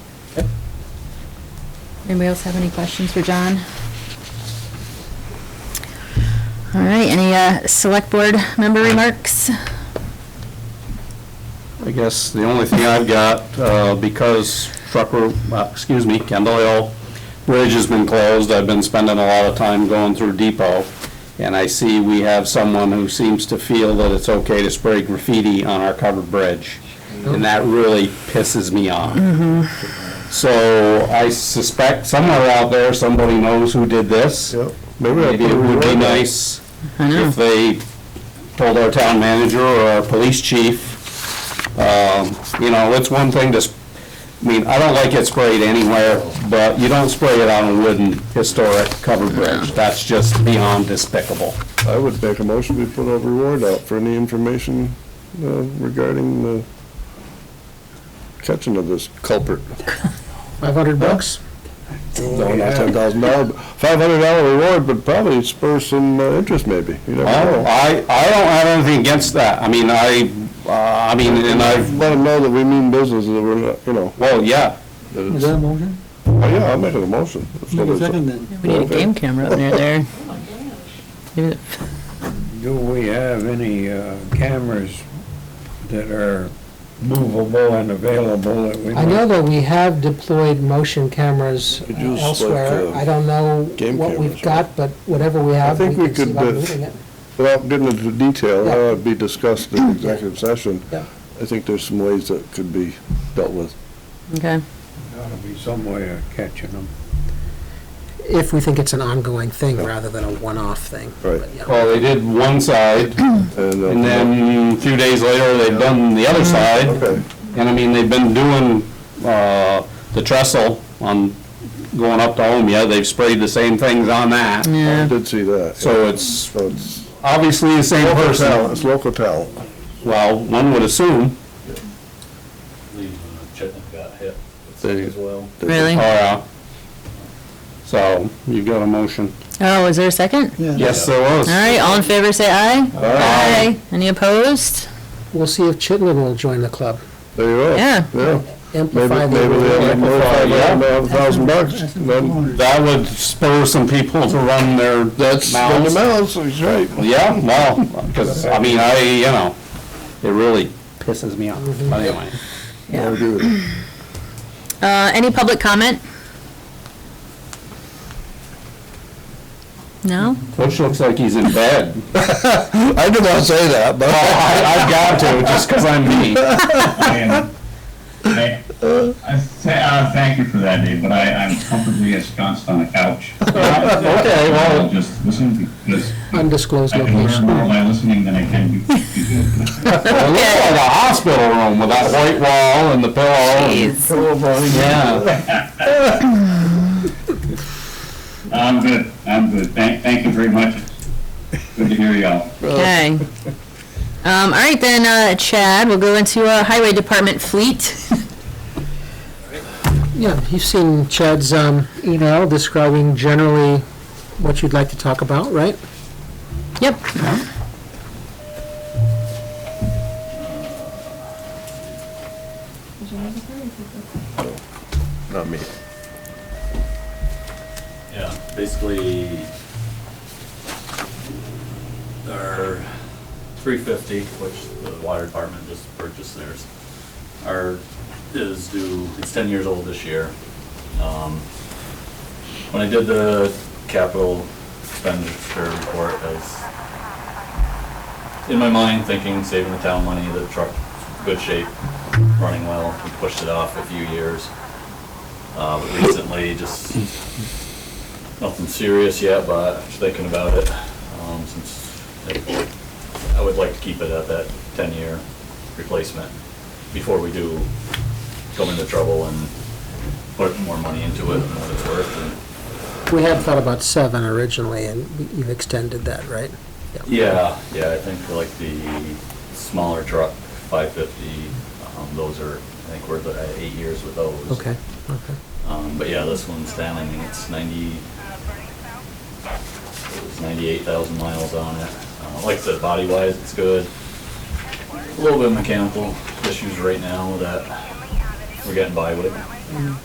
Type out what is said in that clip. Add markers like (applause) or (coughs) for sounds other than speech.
Anybody else have any questions for John? All right, any uh, select board member remarks? I guess the only thing I've got, uh, because Trucker, uh, excuse me, Kendall Hill Bridge has been closed, I've been spending a lot of time going through Depot, and I see we have someone who seems to feel that it's okay to spray graffiti on our covered bridge, and that really pisses me off. So I suspect somewhere out there, somebody knows who did this. Yep. Maybe it would be nice if they told our town manager or our police chief, um, you know, it's one thing to, s- I mean, I don't like it sprayed anywhere, but you don't spray it on a wooden historic covered bridge. That's just beyond despicable. I would make a motion we put over reward out for any information uh, regarding the catching of this culprit. 500 bucks? Oh, No, not ten thousand dollar, five hundred dollar reward, but probably spur some uh, interest maybe. You never Oh, know. I, I don't have anything against that. I mean, I, uh, I mean, and I've, Let them know that we mean business, that we're, not, you know. well, yeah, that Is it's- that a motion? Oh, yeah, I'll make it a motion. It's Make not a a- second then. We need a game camera up near there. Maybe the- Do we have any uh, cameras that are movable and available that we I know might? that we have deployed motion cameras Could use, like, elsewhere. uh, I don't know game what we've cameras, right? got, but whatever we have, think we we can could, see about uh, moving it. Without getting into detail, Yeah. that would be (coughs) discussed in executive session. Yeah. I think there's some ways that could be dealt with. Okay, Gotta be some way of catching them. If we think it's an ongoing thing rather than a one-off thing. Right. But, yeah. well, they did one side, And uh, and then a few days later, they've done the other side. Okay. And I mean, they've been doing, uh, the trestle on, going up to Omea, they've sprayed the same things on that. I yeah, did see that. So it's So it's obviously the same local talent, person. it's local talent. Well, one would assume, believe uh, Chitlin got hit They- as well. really? or, uh, so you've got a motion. Oh, is there a second? Yes, there was. All right, all in favor, say aye. Aye. Any opposed? We'll see if Chitlin will join the club. There you go. Yeah. Yeah. Maybe, Amplify maybe the, they'll make more Amplified, yeah. than a thousand bucks. Then That would spur some people to run their that's the mouths. amounts, that's right. Yeah, well, because, I mean, I, you know, it really pisses me off, but anyway. I agree with you. Uh, any public comment? No? Butch looks like he's in bed. (laughs) I did not say that, but. Well, I, I've got to, just because I'm (laughs) me. Uh, And I, I say, uh, thank you for that, Dave, but I, I'm comfortably ensconced on a couch. Okay, I'll well, just listen because undisclosed I can learn location. more by listening than I can do. (laughs) it looks like a hospital room with that white wall and the pillow. and- Jeez. Yeah, I'm good, I'm good. Thank, thank you very much. Good to hear y'all. Okay. Um, all right then, uh, Chad, we'll go into, uh, Highway Department Fleet. Yeah, you've seen Chad's um, email describing generally what you'd like to talk about, right? Yep. Not me. Yeah, basically, our three fifty, which the water department just purchased theirs, our, is due, it's ten years old this year. Um, When I did the capital expenditure report, I was in my mind thinking, saving the town money, the truck, good shape, running well, we pushed it off a few years. Uh, but recently, just nothing serious yet, but I'm thinking about it, um, since it- I would like to keep it at that ten-year replacement before we do come into trouble and put more money into it than what it's worth. and- We had thought about seven originally, and we- you've extended that, right? Yeah, yeah, I think for like the smaller truck, five fifty, um, those are, I think we're at eight years with those. Okay, okay. Um, but yeah, this one's down, I think it's ninety, it's ninety-eight thousand miles on it. Uh, like I said, body-wise, it's good. A little bit of mechanical issues right now that we're getting by with.